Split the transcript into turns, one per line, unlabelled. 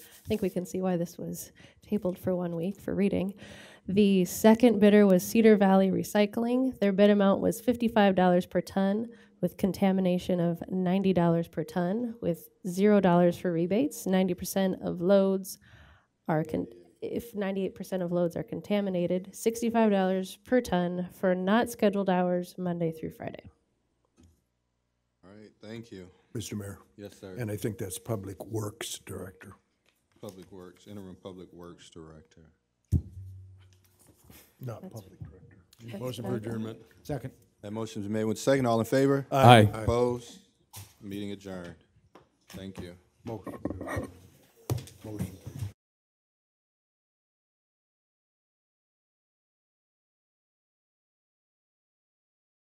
think we can see why this was tabled for one week for reading. The second bidder was Cedar Valley Recycling. Their bid amount was fifty-five dollars per ton with contamination of ninety dollars per ton with zero dollars for rebates. Ninety percent of loads are, con- if ninety-eight percent of loads are contaminated, sixty-five dollars per ton for not scheduled hours, Monday through Friday.
All right, thank you.
Mr. Mayor,
Yes, sir.
and I think that's Public Works Director.
Public Works, interim Public Works Director.
Not public director.
Motion for adjournment.
Second.
That motion's been made with second. All in favor?
Aye.
Opposed? Meeting adjourned. Thank you.
Motion. Motion.